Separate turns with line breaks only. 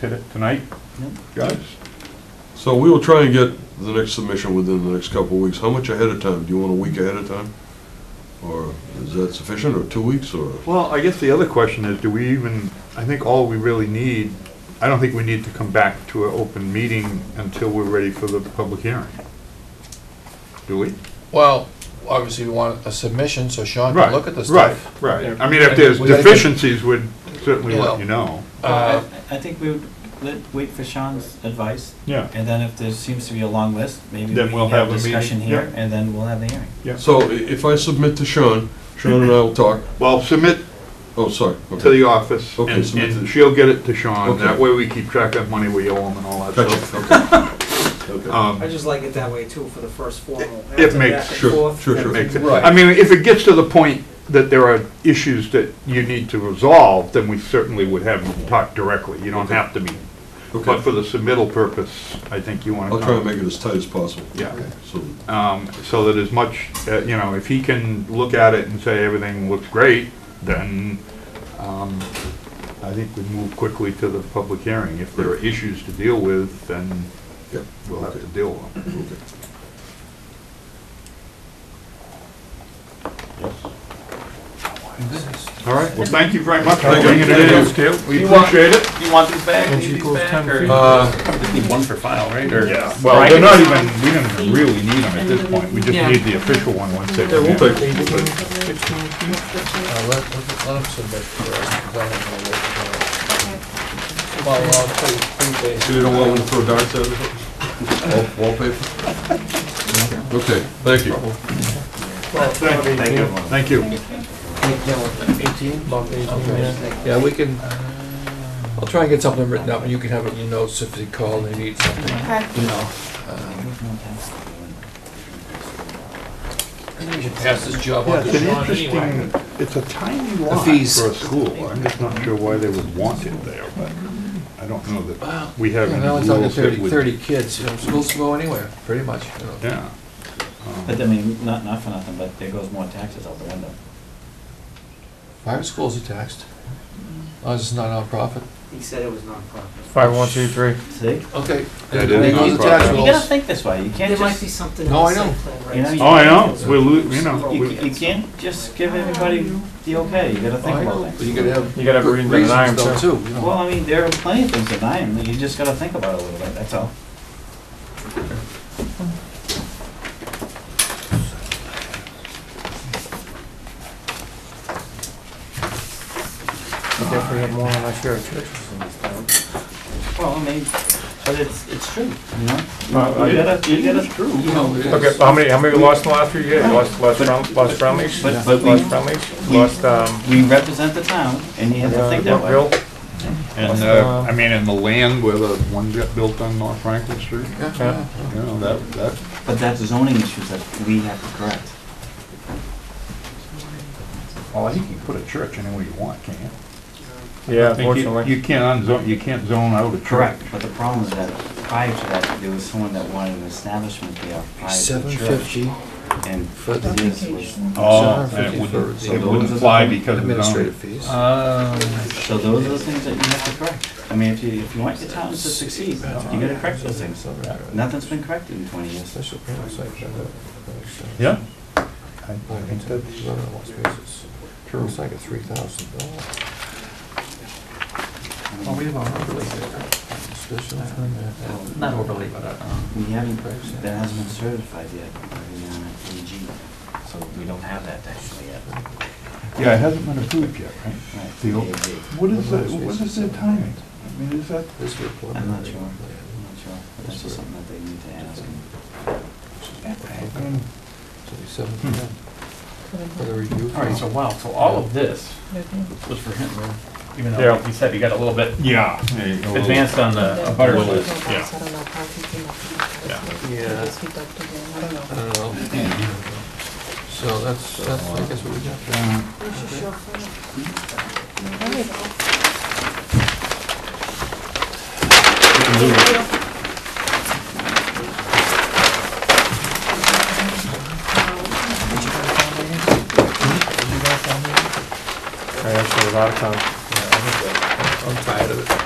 to- tonight, guys.
So we will try and get the next submission within the next couple of weeks. How much ahead of time? Do you want a week ahead of time? Or is that sufficient, or two weeks, or?
Well, I guess the other question is, do we even, I think all we really need, I don't think we need to come back to an open meeting until we're ready for the public hearing. Do we?
Well, obviously, we want a submission, so Sean
Right,
can look at the
Right,
stuff.
right. I mean, if there's
We gotta get-
deficiencies, we'd certainly let
Yeah.
you know.
Uh,
Well, I I think we would let- wait for Sean's advice,
Yeah.
and then if there seems to be a long list, maybe we
Then we'll have
have
a meeting,
discussion here,
yeah.
and then we'll have the hearing.
So i- if I submit to Sean, Sean and I will talk.
Well, submit
Oh, sorry.
to
Okay.
the office, and
Okay, so-
and she'll get it to Sean.
Okay.
That way we keep track of money we owe him and all that stuff.
Gotcha, okay. Okay.
Um,
I just like it that way too, for the first formal.
It- it
After
makes-
back and
sure,
forth,
sure, sure.
everything.
Makes it-
Right.
I mean, if it gets to the point that there are issues that you need to resolve, then we certainly would have you talk directly. You don't have to meet. But
Okay.
for the submittal purpose, I think you want to.
I'll try and make it as tight as possible.
Yeah.
So,
Um, so that as much, uh, you know, if he can look at it and say everything looks great, then, um, I think we move quickly to the public hearing. If there are issues to deal with, then
yeah.
we'll have to deal with them.
Okay.
All right, well, thank you very much for
Thank you.
bringing it in, Skip. We appreciate it.
You want these back, need these back, or?
Uh,
Need one for file, right?
Yeah, well, they're not even, we don't even really need them at this point, we just need the official one once they
Yeah, we'll
come in.
take, we'll take.
Uh, let, let let him submit first, then we'll look at it. Well, I'll pre-
So
pre-base.
you don't want one to throw darts at it? or something? Wall- Wallpaper? Okay, thank you.
Thank you. Thank you.
Eighteen? About eighteen, yeah. Yeah, we can, I'll try and get something written up, and you can have it in your notes if they call, they need something,
Okay.
you know. I think we should pass this job
Yeah,
on to
it's an
Sean anyway.
interesting, it's a tiny lot for a
fees.
school, I'm just not sure why they would want it there, but I don't know
Well,
that we have
Yeah,
any
now
rules
it's talking
that
30,
would.
30 kids, you know, schools can go anywhere, pretty much, you know.
Yeah. Um,
But I mean, not, not for nothing, but there goes more taxes out the window.
Private schools are taxed, as long as it's not nonprofit.
He said it was nonprofit.
Five, one, two, three.
See?
Okay.
That
They
is
need
nonprofit. Well,
You
the tax
gotta
rules.
think this way, you can't
There might be
just,
something in
No,
the
I know.
site plan,
You know,
right?
you-
Oh, I know, we're, lo- you know,
you,
we-
you can't just give everybody the okay, you gotta
Oh,
think
I
about
know,
things.
but you gotta have.
You gotta
good
breathe in an iron,
reasons, though, too, you know.
Well, I mean, there are plenty of things that I am, you just gotta think about it a little bit, that's all.
Definitely have more than I share of churches in this town.
Well, I mean, but it's, it's true, you know?
Uh,
You gotta, you gotta, you know,
Okay, but how many, how many we lost in the last few years? Lost, lost Brown, lost Brumleys?
But- but we-
Lost Brumleys,
we-
lost, um.
we represent the town, and you have to think that way.
Real-
and, uh, I mean, and the land where the one got built on North Franklin Street,
Yeah,
Yeah.
yeah.
you know, that, that,
But that's zoning issues that we have to correct.
well, you can put a church anywhere you want, can't you?
Yeah,
I think you-
unfortunately.
You can't unzone, you can't zone out a church.
But the problem is that prior to that, there was someone that wanted an establishment there prior to
Seven
the church.
fifty
And
for the
this was,
Oh, that
Seven fifty
wouldn't,
for
it
the
wouldn't fly because of zoning.
administrative fees.
Uh, Oh, so those are the things that you have to correct. I mean, if you, if you want your town to succeed, you gotta correct those things. Nothing's been corrected in twenty years.
Special uh, permit site plan.
Yeah.
Well, it's a- run on Las Vegas. It's like a three thousand dollar. Oh, we have a overlay there. Special permit.
Uh, Not overly, but, uh, We haven't, that hasn't been certified yet by the uh, AG, so we don't have that actually yet.
Yeah, it hasn't been approved yet, right?
Right,
The old-
AG.
What is, the- what is their timing? I mean, is that,
This would apply.
I'm not sure, I'm not sure, but that's just something that they need to ask.
I mean,
Seven
Hmm.
percent. For the review.
All right, so wow, so all of this was for him, even though, like you said, he got a little bit
yeah.
advanced on the butter list.
yeah.
Yeah. I don't know. Uh, So that's, that's, I guess what we got.
I actually was out of town.
I'm tired of it.